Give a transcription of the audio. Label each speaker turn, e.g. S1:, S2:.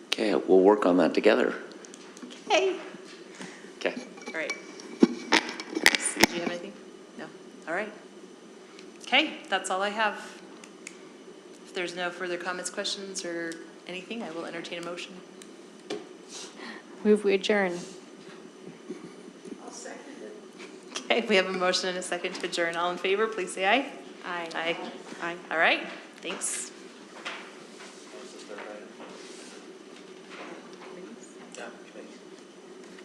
S1: Okay, we'll work on that together.
S2: Hey.
S1: Okay.
S2: All right. Did you have anything? No. All right. Okay, that's all I have. If there's no further comments, questions, or anything, I will entertain a motion.
S3: Move we adjourn.
S2: Okay, we have a motion and a second to adjourn. All in favor, please say aye.
S3: Aye.
S2: Aye. Aye. All right, thanks.